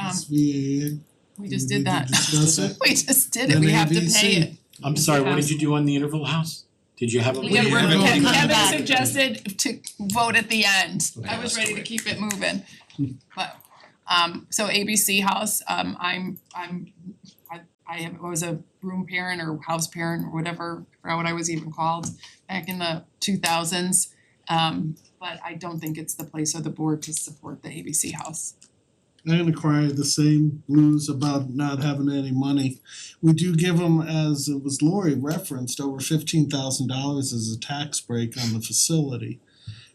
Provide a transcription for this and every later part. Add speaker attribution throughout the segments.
Speaker 1: Um,
Speaker 2: VAA?
Speaker 1: We just
Speaker 2: Did we
Speaker 1: did that.
Speaker 2: discuss it?
Speaker 1: We just did it, we have to pay it.
Speaker 3: I'm sorry, what did you do on the interval house? Did you have a?
Speaker 1: We
Speaker 2: We
Speaker 1: have-
Speaker 2: have it
Speaker 1: Kevin-
Speaker 2: all.
Speaker 1: Kevin suggested to vote at the end, I
Speaker 4: Okay,
Speaker 1: was
Speaker 4: that's
Speaker 1: ready to
Speaker 4: great.
Speaker 1: keep it moving. But um so ABC House, um I'm I'm I I am- I was a room parent or house parent or whatever, I forgot what I was even called back in the two thousands. Um but I don't think it's the place or the board to support the ABC House.
Speaker 2: I'm gonna cry the same blues about not having any money. We do give them, as it was Lori referenced, over fifteen thousand dollars as a tax break on the facility.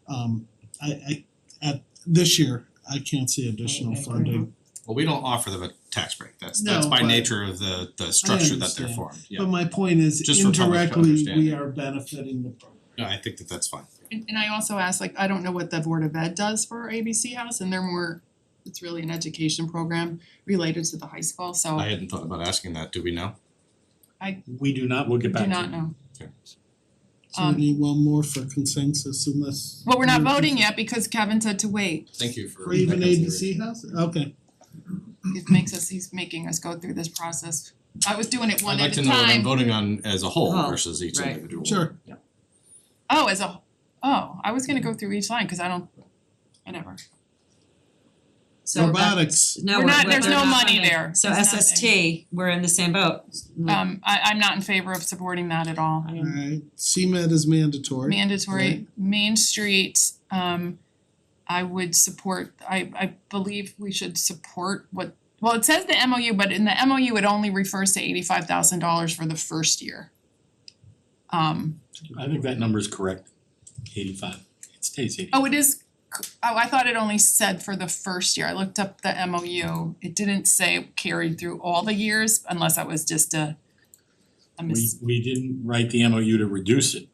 Speaker 2: Um I I at this year, I can't see additional funding.
Speaker 4: Well, we don't offer them a tax break, that's that's
Speaker 2: No,
Speaker 4: by
Speaker 2: but-
Speaker 4: nature of the the structure that they're
Speaker 2: understand.
Speaker 4: formed, yeah.
Speaker 2: But my point is
Speaker 4: Just for public to
Speaker 2: indirectly, we
Speaker 4: understand.
Speaker 2: are benefiting the program.
Speaker 4: No, I think that that's fine.
Speaker 1: And and I also asked, like, I don't know what the Board of Ed does for ABC House and they're more, it's really an education program related to the high school, so
Speaker 4: I hadn't thought about asking that, do we know?
Speaker 3: We do not, we'll
Speaker 1: I
Speaker 3: get back
Speaker 1: do
Speaker 3: to you.
Speaker 1: not know.
Speaker 2: So
Speaker 1: Um,
Speaker 2: we need one more for consensus unless.
Speaker 1: Well, we're not voting yet because Kevin said to wait.
Speaker 4: Thank you for.
Speaker 2: For even
Speaker 4: that
Speaker 2: ABC
Speaker 4: consideration.
Speaker 2: house, okay.
Speaker 1: It makes us, he's making us go through this process. I was doing it one
Speaker 4: I'd
Speaker 1: at
Speaker 4: like
Speaker 1: a
Speaker 4: to know what I'm
Speaker 1: time.
Speaker 4: voting on as a whole
Speaker 5: Oh,
Speaker 4: versus each
Speaker 5: right.
Speaker 4: individual.
Speaker 2: Sure.
Speaker 1: Oh, as a, oh, I was gonna go through each line, cause I don't, whatever.
Speaker 4: Mm-hmm.
Speaker 5: So that,
Speaker 2: Robotics,
Speaker 5: no,
Speaker 1: We're
Speaker 5: we're
Speaker 1: not-
Speaker 5: we're-
Speaker 1: there's
Speaker 5: they're
Speaker 1: no
Speaker 5: not
Speaker 1: money
Speaker 5: funded.
Speaker 1: there.
Speaker 5: So
Speaker 1: There's nothing.
Speaker 5: SST, we're in the same boat. Mm.
Speaker 1: Um, I I'm not in favor of supporting that at all.
Speaker 2: alright, CMed is mandatory.
Speaker 1: mandatory
Speaker 2: Right.
Speaker 1: Main Street, um I would support, I I believe we should support what, well, it says the MOU, but in the MOU, it only refers to eighty five thousand dollars for the first year. Um
Speaker 3: I think that number is correct, eighty-five, it stays eighty.
Speaker 1: oh, it is, c- oh, I thought it only said for the first year, I looked up the MOU, it didn't say carried through all the years unless that was just a a
Speaker 3: We
Speaker 1: mis,
Speaker 3: we didn't write the MOU to reduce it,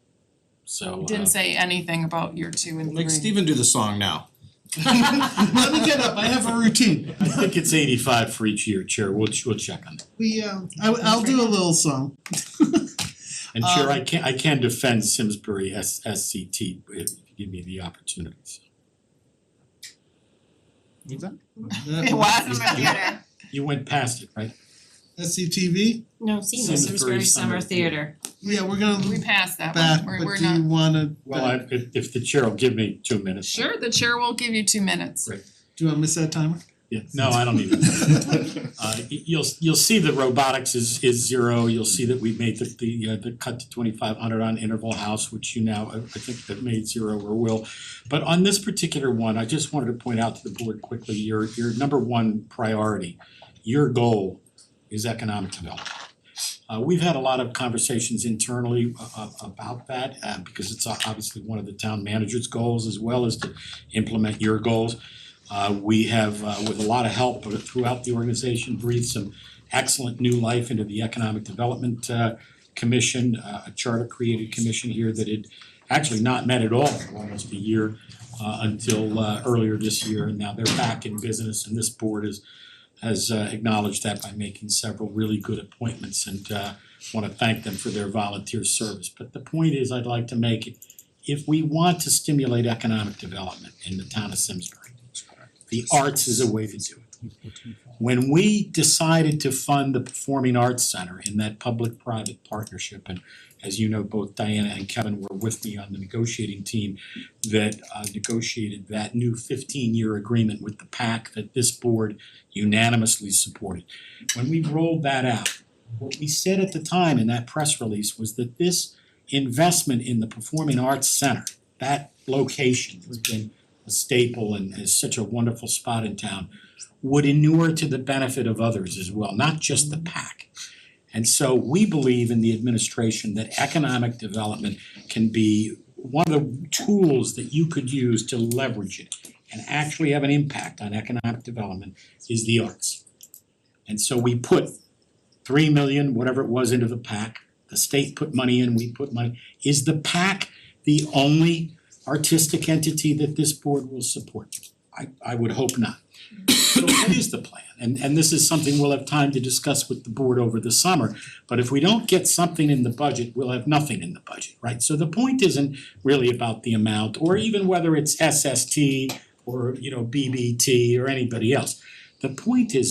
Speaker 3: so
Speaker 1: it
Speaker 3: uh
Speaker 1: didn't say anything about year two and three.
Speaker 4: Make Steven do the song now.
Speaker 2: Let me get up, I have a routine.
Speaker 3: I think it's eighty-five for each year, Chair, we'll we'll check on that.
Speaker 2: We um I I'll do a little song.
Speaker 3: And Chair,
Speaker 2: Um,
Speaker 3: I can I can defend Simsbury S S C T if you give me the opportunity, so.
Speaker 1: It was, yeah.
Speaker 3: You went past it, right?
Speaker 2: SCTV,
Speaker 5: No, Seamus.
Speaker 3: Simsbury
Speaker 5: Simsbury Summer
Speaker 3: Summer
Speaker 5: Theater.
Speaker 2: yeah, we're gonna
Speaker 1: We
Speaker 2: look
Speaker 1: passed that
Speaker 2: back,
Speaker 1: one,
Speaker 2: but
Speaker 1: we're we're
Speaker 2: do
Speaker 1: not.
Speaker 2: you wanna,
Speaker 3: Well, I if if the Chair will give me two minutes.
Speaker 1: Sure, the chair will give you two minutes.
Speaker 3: Great.
Speaker 2: do you wanna miss that timer?
Speaker 3: Yeah, no, I don't need it. Uh y- you'll you'll see that robotics is is zero, you'll see that we made the the uh the cut to twenty five hundred on interval house, which you now, I I think that made zero or will. But on this particular one, I just wanted to point out to the board quickly, your your number one priority, your goal is economic development. Uh we've had a lot of conversations internally a- a- about that, uh because it's obviously one of the town manager's goals as well as to implement your goals. Uh we have, uh with a lot of help throughout the organization, breathed some excellent new life into the Economic Development uh Commission, uh, a charter created commission here that had actually not met at all for almost a year uh until uh earlier this year, and now they're back in business and this board is has uh acknowledged that by making several really good appointments and uh wanna thank them for their volunteer service. But the point is I'd like to make, if we want to stimulate economic development in the town of Simsbury, the arts is a way to do it. When we decided to fund the Performing Arts Center in that public-private partnership, and as you know, both Diana and Kevin were with me on the negotiating team that uh negotiated that new fifteen-year agreement with the PAC that this board unanimously supported. When we rolled that out, what we said at the time in that press release was that this investment in the Performing Arts Center, that location has been a staple and is such a wonderful spot in town, would inure to the benefit of others as well, not just the PAC. And so we believe in the administration that economic development can be one of the tools that you could use to leverage it and actually have an impact on economic development is the arts. And so we put three million, whatever it was, into the PAC. The state put money in, we put money. Is the PAC the only artistic entity that this board will support? I I would hope not. So what is the plan? And and this is something we'll have time to discuss with the board over the summer. But if we don't get something in the budget, we'll have nothing in the budget, right? So the point isn't really about the amount or even whether it's SST or, you know, BBT or anybody else. The point is